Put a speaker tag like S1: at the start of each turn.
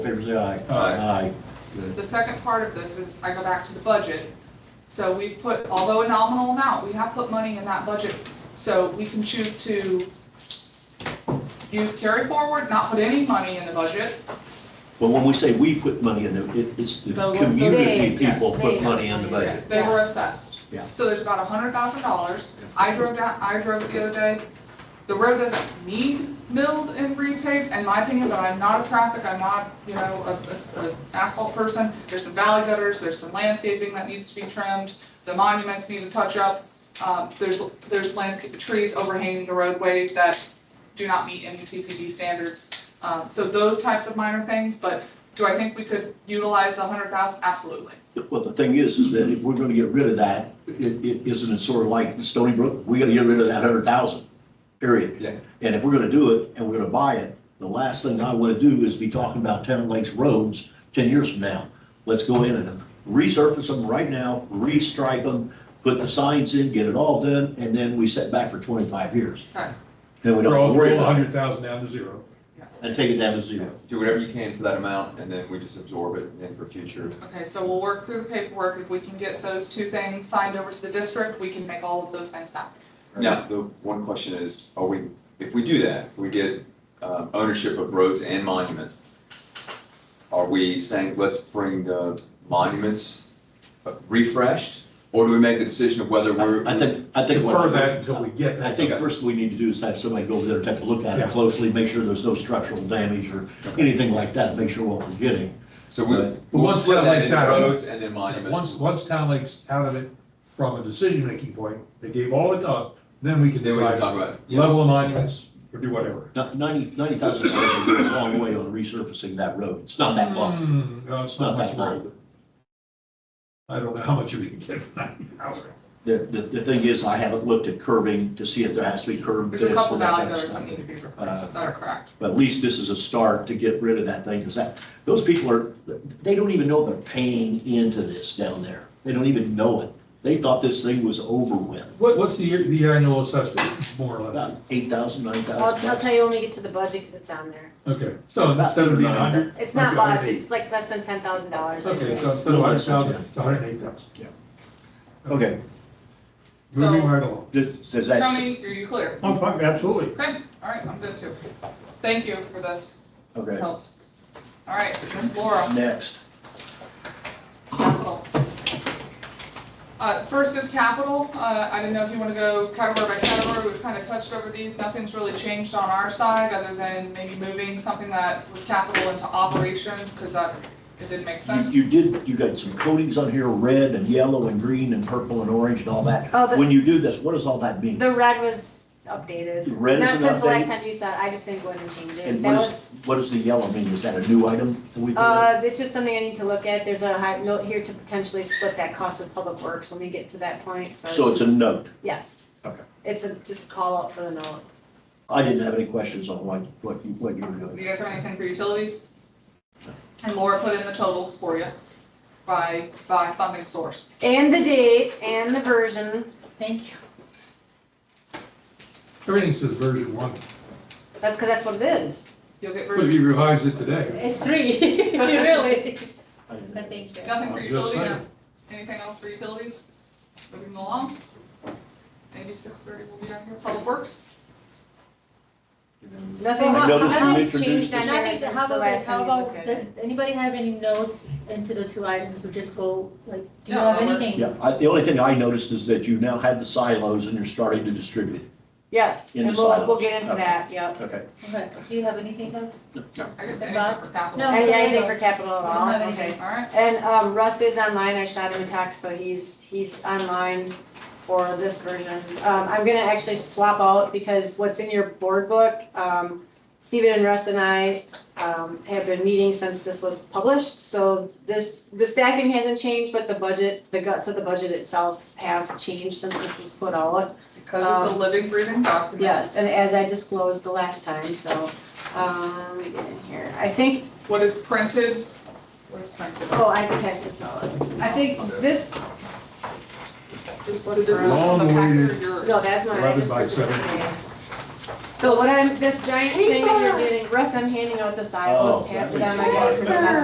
S1: favor say aye.
S2: Aye.
S3: The second part of this is, I go back to the budget. So we've put, although a nominal amount, we have put money in that budget, so we can choose to use carry forward, not put any money in the budget.
S1: Well, when we say we put money in there, it- it's the
S3: The- the-
S1: community
S3: they,
S1: people
S3: yes,
S1: put
S4: they,
S1: money
S4: yes,
S1: in the
S4: they,
S1: budget.
S3: They were assessed.
S1: Yeah.
S3: So there's about a hundred thousand dollars. I drove down, I drove it the other day. The road doesn't need milled and repaved, in my opinion, but I'm not a traffic, I'm not, you know, a, a- a asphalt person. There's some valley gutters, there's some landscaping that needs to be trimmed, the monuments need to touch up. Uh, there's, there's landscape, trees overhanging the roadway that do not meet any TCD standards. Uh, so those types of minor things, but do I think we could utilize the hundred thousand? Absolutely.
S1: Well, the thing is, is that if we're gonna get rid of that, it, it, isn't it sort of like Stony Brook? We gotta get rid of that hundred thousand, period.
S2: Yeah.
S1: And if we're gonna do it and we're gonna buy it, the last thing I wanna do is be talking about Ten Lakes roads ten years from now. Let's go in and resurface them right now, restripe them, put the signs in, get it all done, and then we set back for twenty-five years.
S3: Okay.
S1: Then we
S5: Roll,
S1: don't worry
S5: roll a
S1: about it
S5: hundred thousand down to zero.
S1: and take it down to zero.
S2: Do whatever you can for that amount, and then we just absorb it in for future.
S3: Okay, so we'll work through the paperwork. If we can get those two things signed over to the district, we can make all of those things happen.
S2: Now, the one question is, are we, if we do that, we get um, ownership of roads and monuments. Are we saying, let's bring the monuments refreshed? Or do we make the decision of whether we're?
S1: I think, I think. what-
S5: Defer that until we get
S1: I
S5: that.
S1: think first we need to do is have somebody go over there, take a look at it
S5: Yeah.
S1: closely, make sure there's no structural damage or anything like that, make sure what we're getting.
S2: So we,
S1: But
S2: we'll
S5: once
S2: split
S5: that
S2: that
S5: lights
S2: into
S5: out-
S2: roads and then
S5: Once,
S2: monuments.
S5: once Town Lake's out of it from a decision-making point, they gave all it up, then we can
S2: Then we can
S5: decide,
S2: talk about it. Yeah.
S5: level of monuments, or do whatever.
S1: Now, Ninety, ninety thousand dollars would go a long way on resurfacing that road, it's not that long.
S5: Hmm, no, it's
S1: Not
S5: not much
S1: that long.
S5: road. I don't know how much we can get for ninety thousand.
S1: The, the, the thing is, I haven't looked at curbing to see if there has to be curb.
S3: There's a
S1: this
S3: couple
S1: or that Uh,
S3: valley
S1: kind of
S3: gutters
S1: stuff.
S3: that need to be replaced that are cracked.
S1: But at least this is a start to get rid of that thing, because that, those people are, they don't even know they're paying into this down there. They don't even know it. They thought this thing was over with,
S5: What, what's the, year- the annual assessment, more or less?
S1: about eight thousand, nine thousand.
S4: I'll, I'll tell you when we get to the budget that's on there.
S5: Okay, so instead of being a hundred?
S4: It's not
S5: okay,
S4: much, it's like less than ten thousand dollars.
S5: Okay, so instead of a hundred thousand, it's a hundred and eight thousand.
S1: Yeah. Okay,
S5: Moving
S3: So-
S5: right along.
S1: does, does that?
S3: Tony, are you clear?
S6: I'm fine, absolutely.
S3: Okay, all right, I'm good too. Thank you for this, It
S1: Okay,
S3: helps. All right, Miss Laura,
S1: next.
S3: capital. Uh, first is capital. Uh, I didn't know if you want to go category by category. We've kind of touched over these. Nothing's really changed on our side other than maybe moving something that was capital into operations because that, it didn't make
S1: You-
S3: sense.
S1: You did, you got some coatings on here, red and yellow and green and purple and orange and all that.
S4: Oh, the-
S1: When you do this, what does all that mean?
S4: The red was updated.
S1: Red is
S4: Not
S1: an
S4: since the last
S1: update,
S4: time you saw it, I just didn't go ahead and change it.
S1: and
S4: That
S1: what is,
S4: was,
S1: what does the yellow mean? Is that a new item that we? put in?
S4: uh, it's just something I need to look at. There's a high note here to potentially split that cost with public works when we get to that point, so.
S1: So it's a
S4: just-
S1: note.
S4: Yes.
S1: Okay.
S4: It's a, just call out for the note.
S1: I didn't have any questions on what, what you, what you were doing.
S3: Do you guys have anything for utilities? And Laura put in the totals for you by, by funding source.
S4: And the date and the version. Thank you.
S5: Everything says version one,
S4: That's because that's what it is.
S3: You'll get,
S5: but
S3: rid-
S5: if you revised it today.
S4: It's three, really.
S1: I didn't
S4: But
S1: have-
S4: thank you.
S3: nothing for
S5: I'm just
S3: utilities?
S5: saying.
S3: Anything else for utilities? Moving along. Maybe six thirty will be on here, public works?
S4: Nothing,
S1: I noticed you
S4: nothing's
S1: introduced
S4: changed on
S1: this-
S7: And I
S4: there
S7: think,
S4: since
S7: how
S4: the
S7: about,
S4: last
S7: how
S4: time you looked at
S7: about,
S4: it.
S7: does anybody have any notes into the two items, we just go, like, do you
S3: No,
S7: have
S3: that works.
S7: anything?
S1: Yeah, I, the only thing I noticed is that you now have the silos and you're starting to distribute.
S4: Yes,
S1: in
S4: and
S1: the
S4: we'll, we'll
S1: silos.
S4: get into
S1: Okay.
S4: that, yep.
S1: Okay.
S7: Okay, do you have anything, Doug?
S3: I guess
S7: Okay,
S3: anything for capital.
S7: No.
S4: And
S7: sorry,
S4: anything
S7: no.
S4: for capital at
S7: I don't have
S4: all,
S7: anything.
S4: okay.
S3: All right,
S4: And, um, Russ is online, I shot him a text, so he's, he's online for this version. Um, I'm gonna actually swap out, because what's in your board book, um, Steven and Russ and I, um, have been meeting since this was published, so this, the staffing hasn't changed, but the budget, the guts of the budget itself have changed since this was put out.
S3: because it's a
S4: Um,
S3: living, breathing document.
S4: Yes, and as I disclosed the last time, so, um, let me get in here. I think,
S3: What is printed, what is printed?
S4: oh, I can pass this out. I think this,
S3: This,
S4: What
S3: did this, this is the
S5: Long-awaited-
S3: packet or yours?
S4: no, that's not. I
S5: Eleven
S4: just
S5: by
S4: printed it. So what I'm, this giant thing that you're
S7: Paper.
S4: getting, Russ, I'm handing out the sidewalls,
S1: Oh,
S4: tap it
S1: that
S4: on my
S1: Oh, makes
S4: back,
S1: sense.
S4: remember?